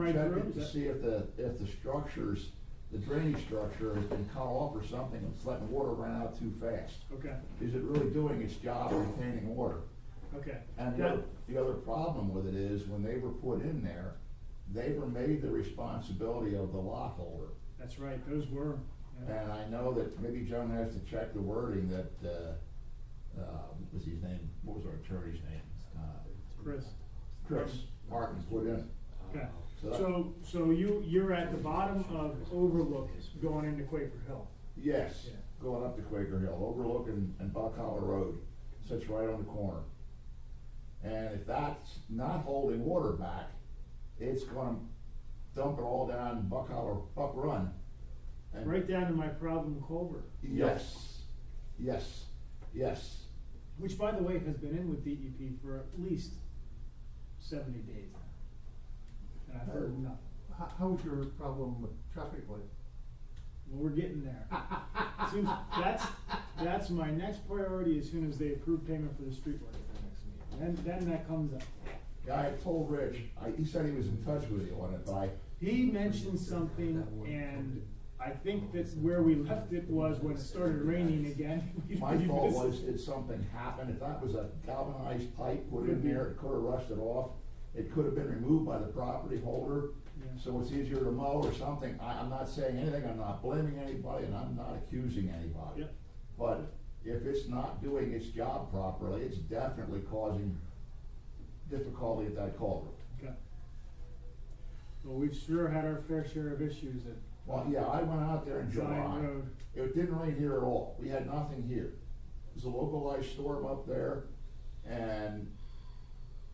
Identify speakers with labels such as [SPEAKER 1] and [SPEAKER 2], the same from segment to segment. [SPEAKER 1] Right
[SPEAKER 2] check
[SPEAKER 1] through,
[SPEAKER 2] it to
[SPEAKER 1] is
[SPEAKER 2] see if the, if the structures, the drainage structure has been cut off or something, it's letting water run out too fast.
[SPEAKER 1] Okay,
[SPEAKER 2] Is it really doing its job of retaining water?
[SPEAKER 1] okay.
[SPEAKER 2] And the,
[SPEAKER 1] That-
[SPEAKER 2] other- the other problem with it is, when they were put in there, they were made the responsibility of the lot holder.
[SPEAKER 1] That's right, those were, yeah.
[SPEAKER 2] And I know that maybe John has to check the wording that, uh, uh, what was his name, what was our attorney's name? Uh,
[SPEAKER 1] Chris.
[SPEAKER 2] Chris Martin put in.
[SPEAKER 1] Okay,
[SPEAKER 2] So that-
[SPEAKER 1] so, so you, you're at the bottom of Overlook going into Quaker Hill.
[SPEAKER 2] Yes,
[SPEAKER 1] Yeah.
[SPEAKER 2] going up to Quaker Hill, overlooking and Buck Hollow Road, sits right on the corner. And if that's not holding water back, it's gonna dump it all down Buck Hollow, Buck Run. And-
[SPEAKER 1] Right down to my problem culvert,
[SPEAKER 2] Yes, yes, yes.
[SPEAKER 1] which by the way has been in with DEP for at least seventy days now. And I've heard nothing.
[SPEAKER 3] How, how was your problem with traffic light?
[SPEAKER 1] Well, we're getting there. Soon, that's, that's my next priority as soon as they approve payment for the street work at the next meeting. Then, then that comes up.
[SPEAKER 2] Yeah, I told Rich, I, he said he was in touch with you on it, but I,
[SPEAKER 1] He mentioned something and I think that's where we left it was when it started raining again. we-
[SPEAKER 2] my
[SPEAKER 1] we
[SPEAKER 2] thought
[SPEAKER 1] missed it.
[SPEAKER 2] was, did something happen? If that was a galvanized pipe put in there,
[SPEAKER 1] Mm-hmm.
[SPEAKER 2] it could've rusted off. It could've been removed by the property holder.
[SPEAKER 1] Yeah.
[SPEAKER 2] So it's easier to mow or something, I, I'm not saying anything, I'm not blaming anybody, and I'm not accusing anybody.
[SPEAKER 1] Yep.
[SPEAKER 2] But if it's not doing its job properly, it's definitely causing difficulty at that culvert.
[SPEAKER 1] Okay. Well, we've sure had our fair share of issues at
[SPEAKER 2] Well, yeah, I went out there in
[SPEAKER 1] Zion
[SPEAKER 2] July,
[SPEAKER 1] Road.
[SPEAKER 2] it didn't rain here at all, we had nothing here. It was a localized storm up there, and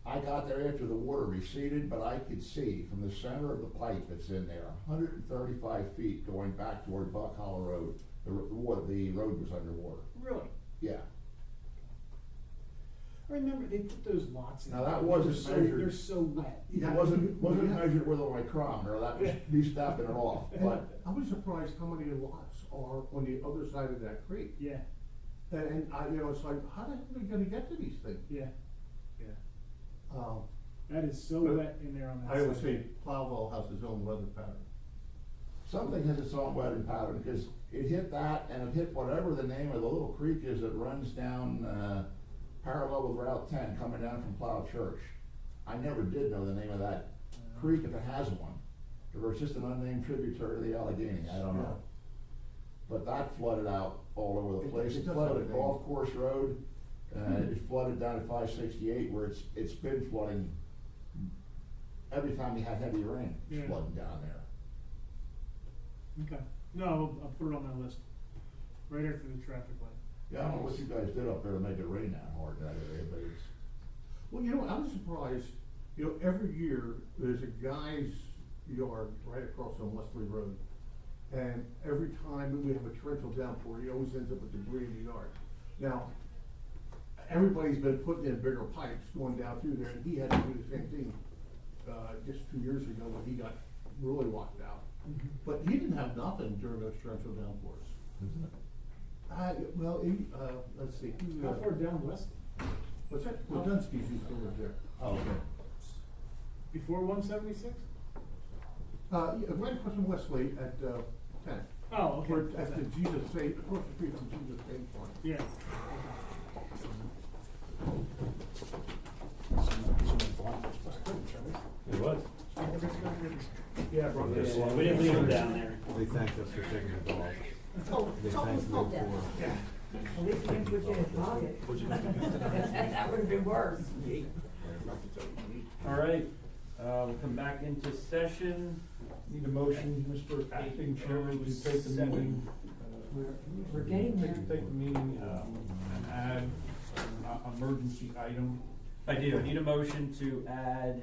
[SPEAKER 2] I got there after the water receded, but I could see from the center of the pipe that's in there, hundred and thirty-five feet going back toward Buck Hollow Road. The, r- the water, the road was underwater,
[SPEAKER 1] Really?
[SPEAKER 2] yeah.
[SPEAKER 1] I remember they put those lots in.
[SPEAKER 2] Now, that
[SPEAKER 1] They were
[SPEAKER 2] wasn't
[SPEAKER 1] so-
[SPEAKER 2] measured.
[SPEAKER 1] They're so wet.
[SPEAKER 2] It wasn't, wasn't measured with a micrometer, that was me stepping it off, but
[SPEAKER 3] I was surprised how many lots are on the other side of that creek.
[SPEAKER 1] Yeah,
[SPEAKER 3] And, and I, you know, it's like, how the hell are we gonna get to these things?
[SPEAKER 1] yeah, yeah.
[SPEAKER 3] Um,
[SPEAKER 1] That is so
[SPEAKER 3] But
[SPEAKER 1] wet in there on that
[SPEAKER 3] I always say
[SPEAKER 1] side.
[SPEAKER 3] Plowville has its own weather pattern.
[SPEAKER 2] something has its own weather pattern, because it hit that, and it hit whatever the name of the little creek is that runs down, uh, parallel with Route ten, coming down from Plow Church. I never did know the name of that
[SPEAKER 1] Uh,
[SPEAKER 2] creek, if it has one, or it's just an unnamed tributary to the Allegheny, I don't know. But that flooded out all over the
[SPEAKER 3] It-
[SPEAKER 2] place, it
[SPEAKER 3] it does have a
[SPEAKER 2] flooded
[SPEAKER 3] name. Hmm.
[SPEAKER 2] Golf Course Road, uh, it flooded down at five sixty-eight, where it's, it's been flooding every time we had heavy rain, it's
[SPEAKER 1] Yeah.
[SPEAKER 2] flooding down there.
[SPEAKER 1] Okay, no, I'll- I'll put it on my list, right after the traffic light.
[SPEAKER 2] Yeah, I don't know what you guys did up there to make it rain that hard that area, but it's,
[SPEAKER 3] Well, you know, I was surprised, you know, every year, there's a guy's yard right across on Wesley Road. And every time we have a torrential downpour, he always ends up with debris in the yard. Now, everybody's been putting in bigger pipes going down through there, and he had to do the same thing, uh, just two years ago when he got really locked out.
[SPEAKER 2] Mm-hmm.
[SPEAKER 3] But he didn't have nothing during those torrential downpours. I, well, he, uh, let's see, who,
[SPEAKER 1] How
[SPEAKER 3] uh,
[SPEAKER 1] far down west?
[SPEAKER 3] what's that, Wadunski's used to live there.
[SPEAKER 2] oh, okay.
[SPEAKER 1] Before one seventy-six?
[SPEAKER 3] Uh, yeah, right across from Wesley at, uh, ten.
[SPEAKER 1] Oh, okay.
[SPEAKER 3] Where, at the Jesus Faith, across the street from Jesus Faith Farm.
[SPEAKER 1] Yeah,
[SPEAKER 4] It was.
[SPEAKER 3] Yeah,
[SPEAKER 4] We didn't leave them down there.
[SPEAKER 5] They thanked us for taking the dog.
[SPEAKER 6] Oh,
[SPEAKER 5] They thanked
[SPEAKER 6] it's almost
[SPEAKER 5] me
[SPEAKER 6] called that.
[SPEAKER 5] for.
[SPEAKER 6] At least it didn't put you in his pocket. That would have been worse.
[SPEAKER 4] All right, uh, we'll come back into session.
[SPEAKER 7] Need a motion, Mr. Acting Chairman, to take the meeting.
[SPEAKER 6] We're, we're getting
[SPEAKER 7] Take,
[SPEAKER 6] there.
[SPEAKER 7] take the meeting, uh, and add, uh, emergency item,
[SPEAKER 4] I do, need a motion to add,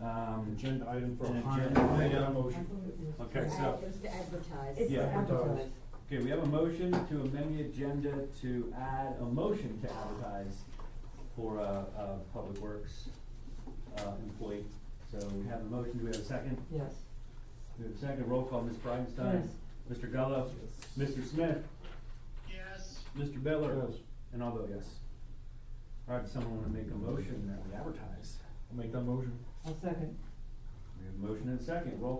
[SPEAKER 4] um,
[SPEAKER 7] agenda item for.
[SPEAKER 4] An
[SPEAKER 7] higher-
[SPEAKER 4] agenda
[SPEAKER 7] Make that a
[SPEAKER 4] item.
[SPEAKER 6] I thought
[SPEAKER 7] motion.
[SPEAKER 6] it was-
[SPEAKER 4] Okay, so-
[SPEAKER 6] It's to advertise.
[SPEAKER 7] Yeah.
[SPEAKER 6] advertise.
[SPEAKER 4] okay, we have a motion to amend the agenda to add a motion to advertise for, uh, uh, Public Works, uh, employee. So we have a motion, do we have a second?
[SPEAKER 6] Yes.
[SPEAKER 4] We have a second, roll call, Ms. Bridenstine.
[SPEAKER 6] Yes.
[SPEAKER 4] Mr. Gallo. Mr. Smith. Yes. Mr. Bittler.
[SPEAKER 3] Yes.
[SPEAKER 4] And I'll vote yes. All right, does someone wanna make a motion that we advertise?
[SPEAKER 7] I'll make that motion.
[SPEAKER 6] I'll second.
[SPEAKER 4] We We have a motion and a second, roll